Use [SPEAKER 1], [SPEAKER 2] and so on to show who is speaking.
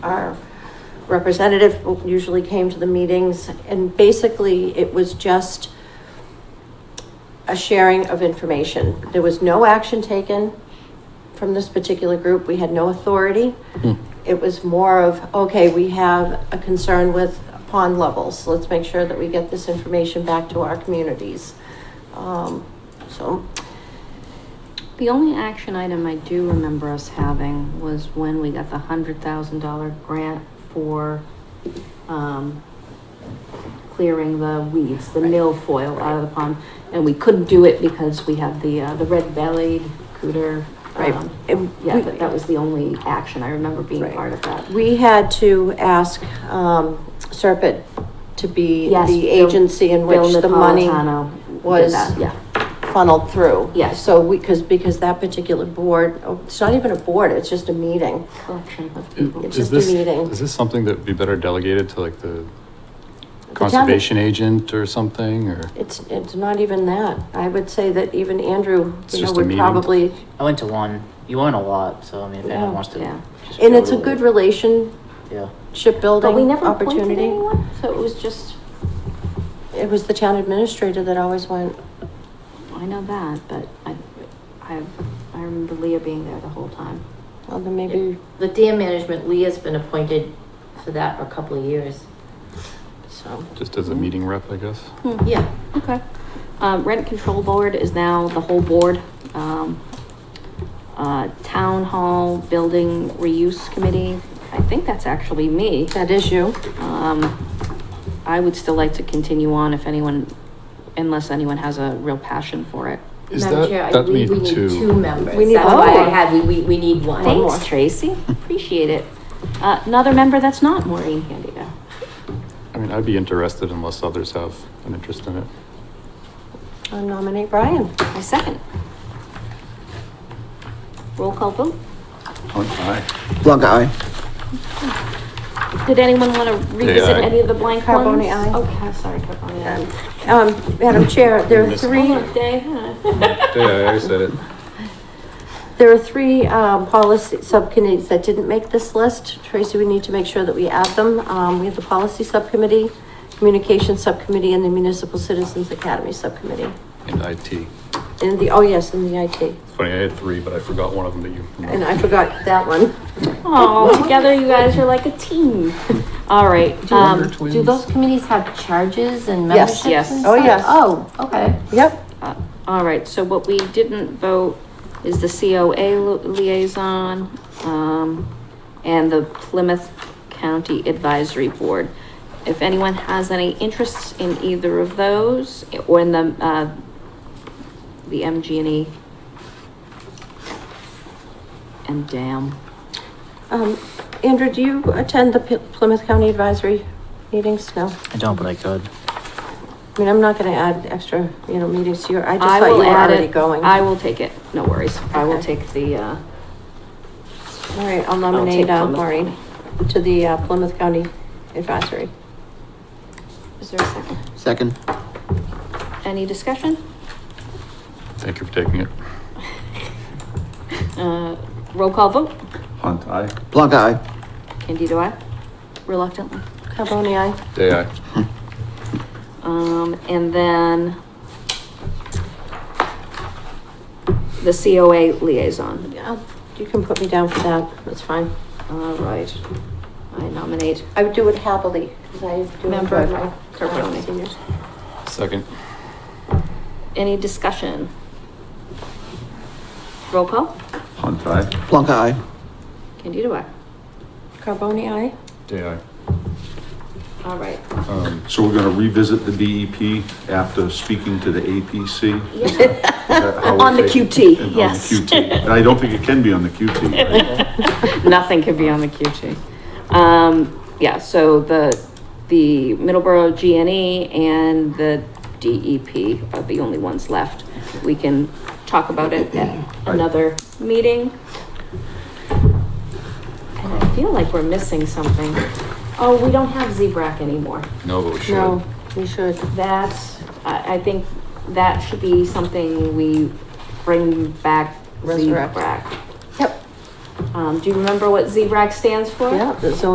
[SPEAKER 1] Our representative usually came to the meetings and basically it was just a sharing of information. There was no action taken from this particular group. We had no authority. It was more of, okay, we have a concern with pond levels. Let's make sure that we get this information back to our communities. Um, so,
[SPEAKER 2] The only action item I do remember us having was when we got the hundred thousand dollar grant for, um, clearing the weeds, the milfoil out of the pond, and we couldn't do it because we have the, uh, the red bellied cooter.
[SPEAKER 1] Right.
[SPEAKER 2] um,
[SPEAKER 1] And
[SPEAKER 2] Yeah,
[SPEAKER 1] we-
[SPEAKER 2] but that was the only action I remember being
[SPEAKER 1] Right.
[SPEAKER 2] part of that.
[SPEAKER 1] We had to ask, um, Serpent to be
[SPEAKER 2] Yes,
[SPEAKER 1] the
[SPEAKER 2] Bill-
[SPEAKER 1] agency in which
[SPEAKER 2] Bill
[SPEAKER 1] the money
[SPEAKER 2] Napolitano did
[SPEAKER 1] was
[SPEAKER 2] that, Yeah,
[SPEAKER 1] funneled through.
[SPEAKER 2] Yes.
[SPEAKER 1] So we, because, because that particular board, oh, it's not even a board, it's just a meeting.
[SPEAKER 2] collection of people.
[SPEAKER 1] It's
[SPEAKER 3] Is
[SPEAKER 1] just a
[SPEAKER 3] this,
[SPEAKER 1] meeting.
[SPEAKER 3] is this something that would be better delegated to like the
[SPEAKER 1] The town-
[SPEAKER 3] conservation agent or something, or?
[SPEAKER 1] It's, it's not even that. I would say that even Andrew,
[SPEAKER 3] It's
[SPEAKER 1] you know,
[SPEAKER 3] just a
[SPEAKER 1] would
[SPEAKER 3] meeting.
[SPEAKER 1] probably,
[SPEAKER 4] I went to one. You went a lot, so I mean, if
[SPEAKER 1] Yeah.
[SPEAKER 4] anyone wants to,
[SPEAKER 2] Yeah.
[SPEAKER 4] just
[SPEAKER 1] and
[SPEAKER 4] go
[SPEAKER 1] it's a
[SPEAKER 4] to
[SPEAKER 1] good
[SPEAKER 4] it.
[SPEAKER 1] relationship
[SPEAKER 4] Yeah.
[SPEAKER 2] But we
[SPEAKER 1] building
[SPEAKER 2] never appointed
[SPEAKER 1] opportunity.
[SPEAKER 2] anyone, so it was just,
[SPEAKER 1] It was the town administrator that always went,
[SPEAKER 2] I know that, but I, I, I remember Leah being there the whole time.
[SPEAKER 1] well, then maybe,
[SPEAKER 5] The dam management, Leah's been appointed for that for a couple of years.
[SPEAKER 1] so.
[SPEAKER 3] Just as a meeting rep, I guess?
[SPEAKER 5] Yeah.
[SPEAKER 2] Okay. Um, rent control board is now the whole board. Um, uh, town hall building reuse committee, I think that's actually me.
[SPEAKER 1] That is you.
[SPEAKER 2] Um, I would still like to continue on if anyone, unless anyone has a real passion for it.
[SPEAKER 3] Is
[SPEAKER 5] Madam
[SPEAKER 3] that,
[SPEAKER 5] Chair, I
[SPEAKER 3] that
[SPEAKER 5] believe we
[SPEAKER 3] mean
[SPEAKER 5] need two
[SPEAKER 3] two?
[SPEAKER 5] members.
[SPEAKER 1] We need
[SPEAKER 5] That's
[SPEAKER 2] one
[SPEAKER 5] why
[SPEAKER 2] more.
[SPEAKER 5] I had, we, we, we need one.
[SPEAKER 1] more.
[SPEAKER 2] Thanks, Tracy. Appreciate it. Uh, another member that's not Maureen Candida.
[SPEAKER 3] I mean, I'd be interested unless others have an interest in it.
[SPEAKER 1] I nominate Brian.
[SPEAKER 2] I second. Roll call vote.
[SPEAKER 3] Oh, aye.
[SPEAKER 6] Plunk eye.
[SPEAKER 2] Did anyone want to revisit
[SPEAKER 3] aye.
[SPEAKER 2] any of the blank
[SPEAKER 1] Carboni,
[SPEAKER 2] ones?
[SPEAKER 1] aye.
[SPEAKER 2] Okay, sorry, Carboni, aye.
[SPEAKER 1] Um, Madam Chair, there are
[SPEAKER 3] Miss-
[SPEAKER 1] three,
[SPEAKER 2] Hold on, Dave, huh?
[SPEAKER 3] Yeah, I said it.
[SPEAKER 1] there are three, um, policy subcommittees that didn't make this list. Tracy, we need to make sure that we add them. Um, we have the policy subcommittee, communications subcommittee, and the municipal citizens academy subcommittee.
[SPEAKER 3] In IT.
[SPEAKER 1] And the, oh yes, and the IT.
[SPEAKER 3] It's funny, I had three, but I forgot one of them that you.
[SPEAKER 1] And I forgot that one.
[SPEAKER 2] Aw, together you guys are like a team. All right,
[SPEAKER 3] Wonder
[SPEAKER 2] um,
[SPEAKER 3] Twins.
[SPEAKER 5] Do those committees have charges and
[SPEAKER 1] Yes.
[SPEAKER 5] memberships and
[SPEAKER 2] Yes.
[SPEAKER 1] Oh, yes.
[SPEAKER 5] stuff? Oh, okay.
[SPEAKER 1] Yep.
[SPEAKER 2] uh, all right, so what we didn't vote is the COA lo- liaison, um, and the Plymouth County Advisory Board. If anyone has any interests in either of those, or in the, uh, the MG&E and DAM.
[SPEAKER 1] Um, Andrew, do you attend the P- Plymouth County Advisory meetings? No.
[SPEAKER 4] I don't, but I could.
[SPEAKER 1] I mean, I'm not gonna add extra, you know, meetings to your, I just
[SPEAKER 2] I
[SPEAKER 1] thought you
[SPEAKER 2] will
[SPEAKER 1] were
[SPEAKER 2] add
[SPEAKER 1] already
[SPEAKER 2] it.
[SPEAKER 1] going.
[SPEAKER 2] I will take it, no worries. I will
[SPEAKER 1] Okay.
[SPEAKER 2] take the, uh,
[SPEAKER 1] All right, I'll
[SPEAKER 2] I'll
[SPEAKER 1] nominate
[SPEAKER 2] take
[SPEAKER 1] uh,
[SPEAKER 2] Plymouth
[SPEAKER 1] Maureen to the uh, Plymouth County Advisory.
[SPEAKER 2] is there a second?
[SPEAKER 6] Second.
[SPEAKER 2] Any discussion?
[SPEAKER 3] Thank you for taking it.
[SPEAKER 2] Uh, roll call vote.
[SPEAKER 3] Hunt, aye.
[SPEAKER 6] Plunk eye.
[SPEAKER 2] Candido, I Reluctantly.
[SPEAKER 1] Carboni, aye.
[SPEAKER 3] Day, aye.
[SPEAKER 2] Um, and then the COA liaison.
[SPEAKER 1] Yeah, You can put me down for that, that's fine.
[SPEAKER 2] All right. I nominate
[SPEAKER 1] I would do it happily, because I do
[SPEAKER 2] Member
[SPEAKER 1] enjoy my
[SPEAKER 2] Carboni.
[SPEAKER 1] seniors.
[SPEAKER 3] Second.
[SPEAKER 2] Any discussion? Roll call.
[SPEAKER 3] Hunt, aye.
[SPEAKER 6] Plunk eye.
[SPEAKER 2] Candido, I.
[SPEAKER 1] Carboni, aye?
[SPEAKER 3] Day, aye.
[SPEAKER 2] All right.
[SPEAKER 3] Um,
[SPEAKER 7] So we're gonna revisit the DEP after speaking to the APC? Is that how we're
[SPEAKER 2] On the
[SPEAKER 7] taking-
[SPEAKER 2] QT,
[SPEAKER 7] and on the
[SPEAKER 2] yes.
[SPEAKER 7] QT. And I don't think it can be on the QT, right?
[SPEAKER 2] Nothing could be on the QT. Um, yeah, so the, the Middleborough GNE and the DEP are the only ones left. We can talk about it at another meeting. And I feel like we're missing something. Oh, we don't have ZBRAC anymore.
[SPEAKER 3] no, but we should.
[SPEAKER 1] No, we should.
[SPEAKER 2] That's, I, I think that should be something we bring back
[SPEAKER 1] Resurrect.
[SPEAKER 2] ZBRAC.
[SPEAKER 1] Yep.
[SPEAKER 2] Um, do you remember what ZBRAC stands for?
[SPEAKER 1] Yeah, the zoning